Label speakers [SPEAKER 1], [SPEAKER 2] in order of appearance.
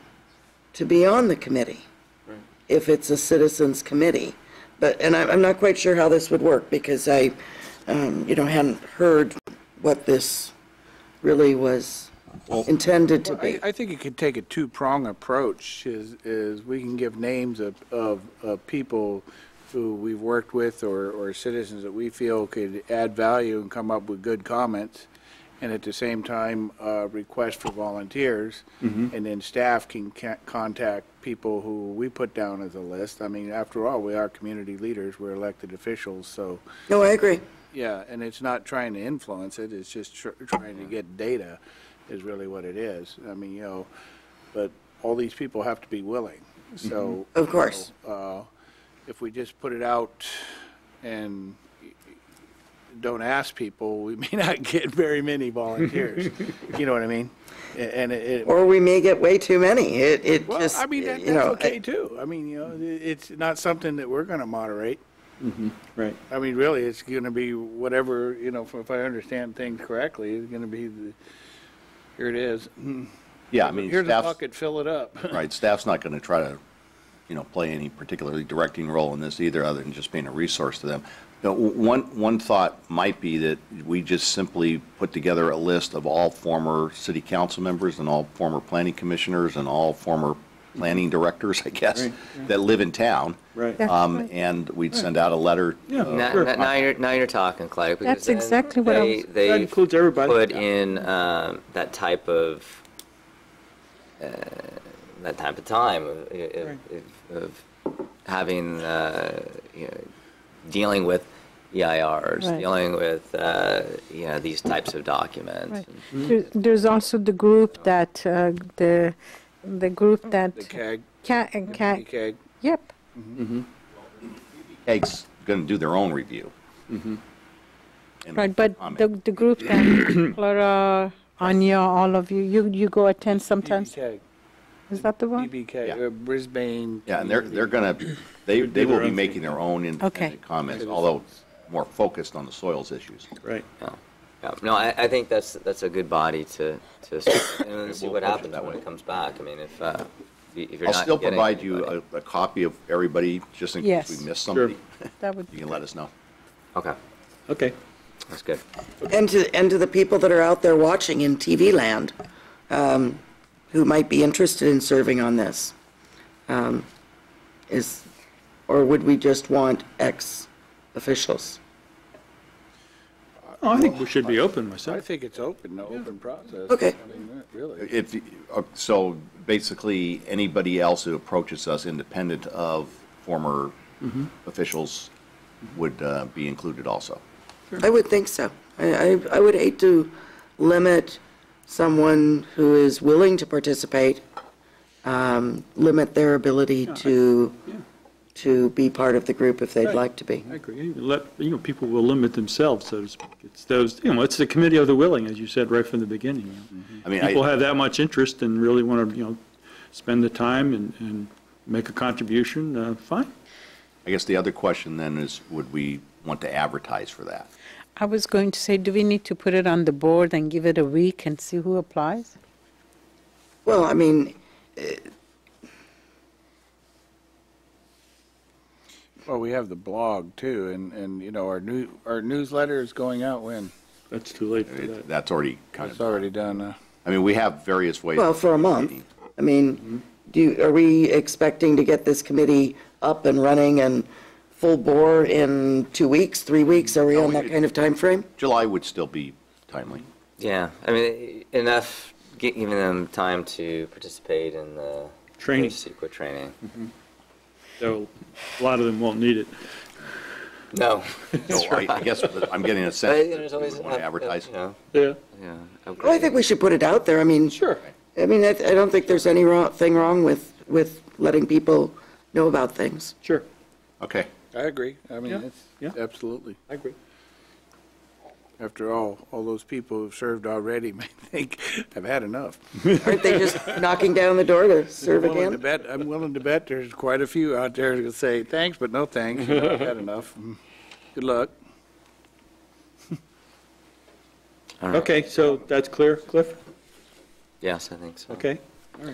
[SPEAKER 1] to be on the committee, if it's a citizens committee. But, and I'm, I'm not quite sure how this would work, because I, um, you know, hadn't heard what this really was intended to
[SPEAKER 2] I,
[SPEAKER 1] be.
[SPEAKER 2] I think you could take a two-prong approach, is, is we can give names of, of, of people who we've worked with or, or citizens that we feel could add value and come up with good comments, and at the same time, uh, request for volunteers.
[SPEAKER 1] Mm-hmm.
[SPEAKER 2] And then staff can ca- contact people who we put down as a list. I mean, after all, we are community leaders, we're elected officials, so,
[SPEAKER 1] No, I agree.
[SPEAKER 2] yeah, and it's not trying to influence it, it's just tr- trying to get data is really what it is. I mean, you know, but all these people have to be willing, so.
[SPEAKER 1] Of course.
[SPEAKER 2] uh, If we just put it out and don't ask people, we may not get very many volunteers. You know what I mean? A- And it. it-
[SPEAKER 1] Or we may get way too many. It, it
[SPEAKER 2] Well,
[SPEAKER 1] just,
[SPEAKER 2] I mean, that-
[SPEAKER 1] you
[SPEAKER 2] that's
[SPEAKER 1] know,
[SPEAKER 2] okay
[SPEAKER 1] I-
[SPEAKER 2] too. I mean, you know, it- it's not something that we're going to moderate.
[SPEAKER 3] Right.
[SPEAKER 2] I mean, really, it's going to be whatever, you know, if I understand things correctly, it's going to be the, here it is.
[SPEAKER 4] Yeah, I mean,
[SPEAKER 2] Here's a
[SPEAKER 4] staff,
[SPEAKER 2] bucket, fill it up.
[SPEAKER 4] right, staff's not going to try to, you know, play any particularly directing role in this either, other than just being a resource to them. Now, w- One, one thought might be that we just simply put together a list of all former city council members and all former planning commissioners and all former planning directors, I guess,
[SPEAKER 3] Right,
[SPEAKER 4] that live in town.
[SPEAKER 3] Right.
[SPEAKER 5] That's
[SPEAKER 4] Um,
[SPEAKER 5] right.
[SPEAKER 4] And we'd send out a letter.
[SPEAKER 3] Yeah.
[SPEAKER 4] uh,
[SPEAKER 6] Now,
[SPEAKER 3] Sure.
[SPEAKER 6] now- now you're, now you're talking, Clay. because
[SPEAKER 5] That's
[SPEAKER 6] then
[SPEAKER 5] exactly what I
[SPEAKER 6] they-
[SPEAKER 5] was-
[SPEAKER 6] they
[SPEAKER 3] That includes everybody.
[SPEAKER 6] Put in um, that type of, uh, that type of time of, of- of having, uh, you know, dealing with EIRs,
[SPEAKER 5] Right.
[SPEAKER 6] dealing with, uh, you know, these types of documents.
[SPEAKER 5] Right. There- There's also the group that, uh, the, the group that.
[SPEAKER 2] The CAG,
[SPEAKER 5] Ca- and ca-
[SPEAKER 2] the CAG.
[SPEAKER 5] yep,
[SPEAKER 4] Egg's going to do their own review. And
[SPEAKER 5] right, but
[SPEAKER 4] comment.
[SPEAKER 5] the, the group that Laura, Anya, all of you, you, you go attend sometimes,
[SPEAKER 2] BBCAG,
[SPEAKER 5] is that the one?
[SPEAKER 2] BBCAG,
[SPEAKER 4] Yeah.
[SPEAKER 2] uh, Brisbane.
[SPEAKER 4] Yeah, and they're, they're going to, they, they will be making their own
[SPEAKER 5] Okay.
[SPEAKER 4] independent comments, although more focused on the soils issues.
[SPEAKER 3] Right.
[SPEAKER 6] Yeah. Yeah. No, I, I think that's, that's a good body to, to, and then see
[SPEAKER 4] we'll
[SPEAKER 6] what
[SPEAKER 4] push it
[SPEAKER 6] happens
[SPEAKER 4] that
[SPEAKER 6] when
[SPEAKER 4] way.
[SPEAKER 6] it comes back. I mean, if, uh, if you're
[SPEAKER 4] I'll
[SPEAKER 6] not
[SPEAKER 4] still
[SPEAKER 6] getting
[SPEAKER 4] provide you
[SPEAKER 6] anybody.
[SPEAKER 4] a, a copy of everybody, just in case
[SPEAKER 5] Yes.
[SPEAKER 4] we miss somebody.
[SPEAKER 5] That would
[SPEAKER 4] You
[SPEAKER 5] be
[SPEAKER 4] can let us know.
[SPEAKER 6] Okay,
[SPEAKER 3] Okay.
[SPEAKER 6] that's good.
[SPEAKER 1] and to, and to the people that are out there watching in TV land, um, who might be interested in serving on this, um, is, or would we just want ex-officials?
[SPEAKER 3] Oh, I think we should be open
[SPEAKER 2] I
[SPEAKER 3] myself.
[SPEAKER 2] think it's open, the open process.
[SPEAKER 1] Okay.
[SPEAKER 2] I mean, that Really.
[SPEAKER 4] If, you- uh, so basically, anybody else who approaches us independent of former officials would uh, be included also.
[SPEAKER 1] I would think so. I, I, I would hate to limit someone who is willing to participate, um, limit their ability to, to be part of the group if they'd like to be.
[SPEAKER 3] I agree. You Let, you know, people will limit themselves, so to speak. It's those, you know, it's the committee of the willing, as you said right from the beginning. you know.
[SPEAKER 4] Mm-hmm. I mean,
[SPEAKER 3] People
[SPEAKER 4] I,
[SPEAKER 3] have that much interest and really want to, you know, spend the time and, and make a contribution, uh, fine.
[SPEAKER 4] I guess the other question then is, would we want to advertise for that?
[SPEAKER 5] I was going to say, do we need to put it on the board and give it a week and see who applies?
[SPEAKER 1] Well, I mean,
[SPEAKER 2] Well, we have the blog too, and, and, you know, our new, our newsletter is going out when?
[SPEAKER 3] That's too late for
[SPEAKER 4] It-
[SPEAKER 3] that.
[SPEAKER 4] That's already kind
[SPEAKER 2] It's
[SPEAKER 4] of,
[SPEAKER 2] already done, uh,
[SPEAKER 4] I mean, we have various ways.
[SPEAKER 1] well, for a month. I mean, do, you- are we expecting to get this committee up and running and full bore in two weeks, three weeks? Are we on that kind of time frame?
[SPEAKER 4] July would still be timely.
[SPEAKER 6] Yeah, I mean, enough gi- giving them time to participate in the
[SPEAKER 3] Training.
[SPEAKER 6] Secret training.
[SPEAKER 3] So a lot of them won't need it.
[SPEAKER 6] No,
[SPEAKER 4] So I I guess I'm getting a
[SPEAKER 6] But,
[SPEAKER 4] sense
[SPEAKER 6] you know, there's
[SPEAKER 4] that we
[SPEAKER 6] always
[SPEAKER 4] would want
[SPEAKER 6] up-
[SPEAKER 4] to
[SPEAKER 6] up,
[SPEAKER 4] advertise.
[SPEAKER 6] You know,
[SPEAKER 3] Yeah.
[SPEAKER 6] yeah.
[SPEAKER 1] Well, Oh, I think we should put it out there. I mean. Sure. I mean, I, I don't think there's any wrong, thing wrong with, with letting people know about things.
[SPEAKER 3] Sure.
[SPEAKER 4] Okay.
[SPEAKER 2] I agree. I
[SPEAKER 3] Yeah,
[SPEAKER 2] mean, it's,
[SPEAKER 3] yeah.
[SPEAKER 2] absolutely.
[SPEAKER 3] I agree.
[SPEAKER 2] After all, all those people who've served already may think, I've had enough.
[SPEAKER 1] Aren't they just knocking down the door to serve
[SPEAKER 2] I'm willing to
[SPEAKER 1] again?
[SPEAKER 2] bet, I'm willing to bet there's quite a few out there who say, thanks, but no thanks, you know, I've had enough. Good luck.
[SPEAKER 6] All right.
[SPEAKER 3] Okay, so that's clear, Cliff?
[SPEAKER 6] Yes, I think so.
[SPEAKER 3] Okay.